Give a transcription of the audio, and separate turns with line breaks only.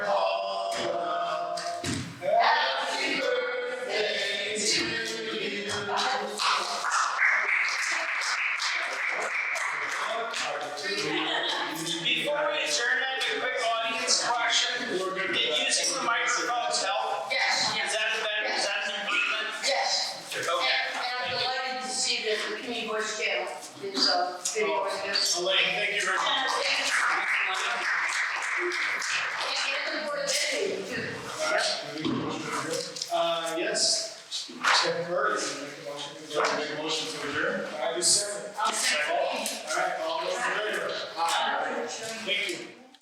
Before we adjourn, I have a quick audience question. Did using the microphones help?
Yes,
Is that a better, is that an improvement?
yes. And,
Okay.
and I'm delighted to see that the Community Voice Channel is, uh, videoing this.
Elaine, thank you very much.
And, and the Board of Ed meeting too.